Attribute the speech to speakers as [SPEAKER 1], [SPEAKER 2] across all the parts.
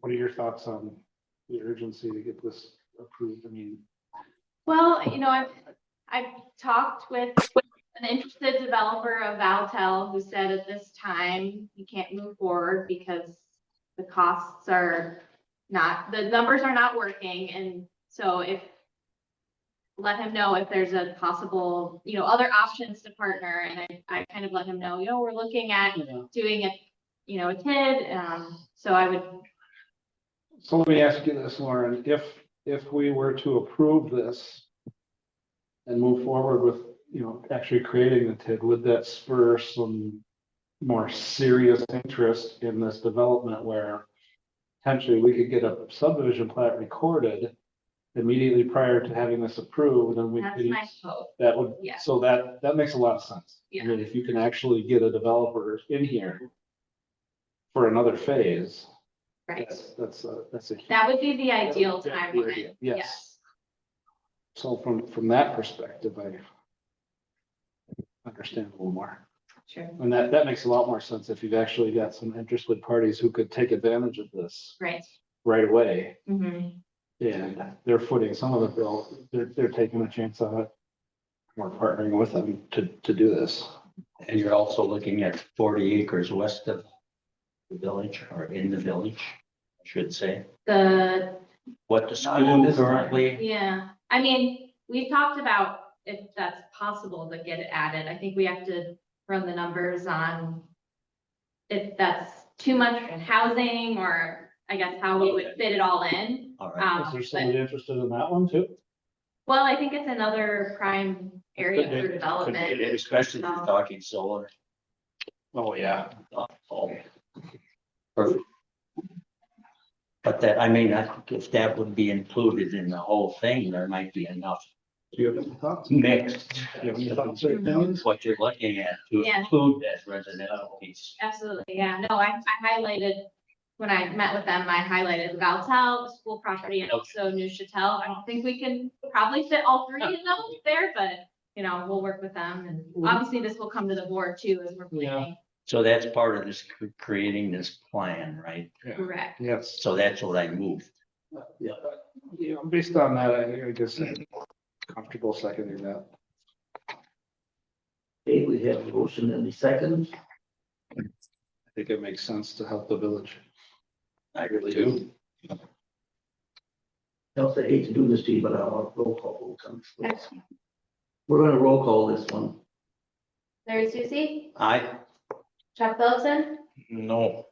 [SPEAKER 1] What are your thoughts on the urgency to get this approved? I mean,
[SPEAKER 2] Well, you know, I've, I've talked with an interested developer of Valtel who said at this time, you can't move forward because the costs are not, the numbers are not working, and so if let him know if there's a possible, you know, other options to partner, and I, I kind of let him know, you know, we're looking at doing a, you know, a TID, um, so I would
[SPEAKER 1] so let me ask you this, Lauren, if, if we were to approve this and move forward with, you know, actually creating the TID, would that spur some more serious interest in this development where potentially we could get a subdivision plat recorded immediately prior to having this approved and we
[SPEAKER 2] That's
[SPEAKER 1] could
[SPEAKER 2] my hope.
[SPEAKER 1] That would,
[SPEAKER 2] Yeah.
[SPEAKER 1] so that, that makes a lot of sense.
[SPEAKER 2] Yeah.
[SPEAKER 1] I mean, if you can actually get a developer in here for another phase,
[SPEAKER 2] Right.
[SPEAKER 1] that's, that's a, that's a.
[SPEAKER 2] That would be the ideal
[SPEAKER 1] Yeah,
[SPEAKER 2] timeline.
[SPEAKER 1] yes. So from, from that perspective, I understand a little more.
[SPEAKER 2] Sure.
[SPEAKER 1] And that, that makes a lot more sense if you've actually got some interested parties who could take advantage of this
[SPEAKER 2] Right.
[SPEAKER 1] right away.
[SPEAKER 2] Mhm.
[SPEAKER 1] And they're footing some of the bill, they're, they're taking a chance on it. We're partnering with them to, to do this.
[SPEAKER 3] And you're also looking at forty acres west of the village or in the village, I should say.
[SPEAKER 2] The,
[SPEAKER 3] What the
[SPEAKER 1] Not in
[SPEAKER 3] school
[SPEAKER 1] this
[SPEAKER 3] currently,
[SPEAKER 2] yeah, I mean, we talked about if that's possible to get it added. I think we have to run the numbers on if that's too much in housing or I guess how we would fit it all in.
[SPEAKER 3] all right,
[SPEAKER 2] Um,
[SPEAKER 1] Is there
[SPEAKER 2] but-
[SPEAKER 1] somebody interested in that one too?
[SPEAKER 2] Well, I think it's another prime area for development.
[SPEAKER 3] especially if you're talking solar.
[SPEAKER 1] Oh, yeah.
[SPEAKER 3] Oh. Perfect. But that, I mean, I- if that would be included in the whole thing, there might be enough
[SPEAKER 1] Do you have any thoughts?
[SPEAKER 3] mixed.
[SPEAKER 1] Do you have any thoughts or opinions?
[SPEAKER 3] What you're looking at to
[SPEAKER 2] Yeah.
[SPEAKER 3] include that residential piece.
[SPEAKER 2] Absolutely, yeah, no, I, I highlighted, when I met with them, I highlighted Valtel, the school property, and also New Chatel. I don't think we can probably fit all three of those there, but, you know, we'll work with them, and obviously this will come to the board too, as we're planning.
[SPEAKER 3] So that's part of this, cr- creating this plan, right?
[SPEAKER 2] Correct,
[SPEAKER 1] Yes.
[SPEAKER 3] So that's what I moved.
[SPEAKER 1] Yeah, Yeah, based on that, I I guess I'm comfortable seconding that.
[SPEAKER 4] Okay, we have a motion and a second.
[SPEAKER 1] I think it makes sense to help the village.
[SPEAKER 3] I
[SPEAKER 4] Else I hate to do this to you, but I'll roll call. vote on this. We're gonna roll call this one.
[SPEAKER 2] Larry Susie,
[SPEAKER 3] I,
[SPEAKER 2] Chuck Phillipson,
[SPEAKER 3] no,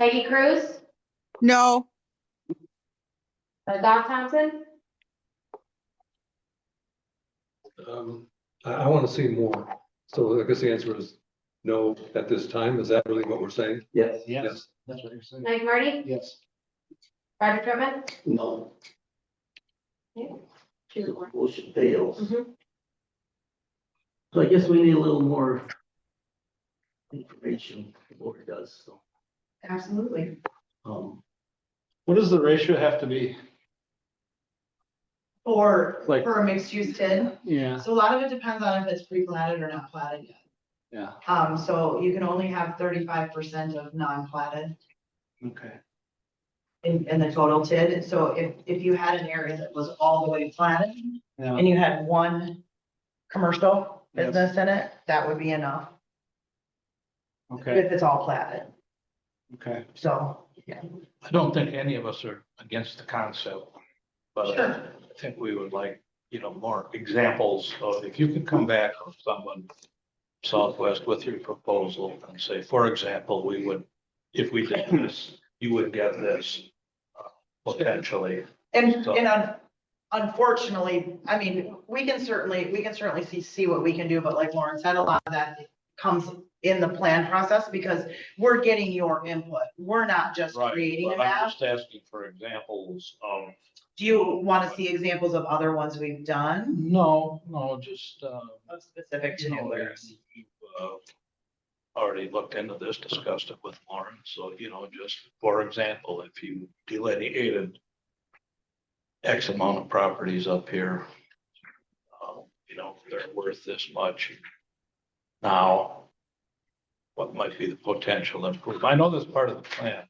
[SPEAKER 2] Peggy Cruz,
[SPEAKER 5] No,
[SPEAKER 2] uh, Doc Thompson,
[SPEAKER 6] Um, I, I want to see more. So I guess the answer is no at this time. Is that really what we're saying?
[SPEAKER 4] Yes,
[SPEAKER 6] Yes.
[SPEAKER 1] That's what you're saying.
[SPEAKER 2] Mike Marty,
[SPEAKER 1] Yes.
[SPEAKER 2] Roger Drummond.
[SPEAKER 4] no. The Motion fails.
[SPEAKER 2] Mhm.
[SPEAKER 4] So I guess we need a little more information, the board does, so,
[SPEAKER 2] Absolutely.
[SPEAKER 4] um,
[SPEAKER 1] What does the ratio have to be?
[SPEAKER 7] Or
[SPEAKER 1] Like-
[SPEAKER 7] for a mixed use TID.
[SPEAKER 1] Yeah.
[SPEAKER 7] So a lot of it depends on if it's pre-platted or not platted yet.
[SPEAKER 1] Yeah,
[SPEAKER 7] Um, so you can only have thirty-five percent of non-platted
[SPEAKER 1] okay.
[SPEAKER 7] in, in the total TID. So if, if you had an area that was all the way platted
[SPEAKER 1] Yeah,
[SPEAKER 7] and you had one commercial
[SPEAKER 1] Yes.
[SPEAKER 7] business in it, that would be enough
[SPEAKER 1] okay,
[SPEAKER 7] if it's all platted.
[SPEAKER 1] okay.
[SPEAKER 7] So,
[SPEAKER 8] I don't think any of us are against the concept, but I think we would like, you know, more examples of, if you could come back with someone Southwest with your proposal and say, for example, we would, if we did this, you would get this uh, potentially.
[SPEAKER 7] and,
[SPEAKER 8] So-
[SPEAKER 7] and un- unfortunately, I mean, we can certainly, we can certainly see, see what we can do, but like Lauren said, a lot of that comes in the plan process because we're getting your input. We're not just creating a
[SPEAKER 8] But I'm
[SPEAKER 7] map.
[SPEAKER 8] just asking for examples of
[SPEAKER 7] Do you want to see examples of other ones we've done?
[SPEAKER 8] No, no, just, uh,
[SPEAKER 7] Specific
[SPEAKER 8] you know, you- you've, uh, Already looked into this, discussed it with Lauren, so, you know, just for example, if you delineated X amount of properties up here, uh, you know, they're worth this much now. What might be the potential improvement? I know that's part of the plan,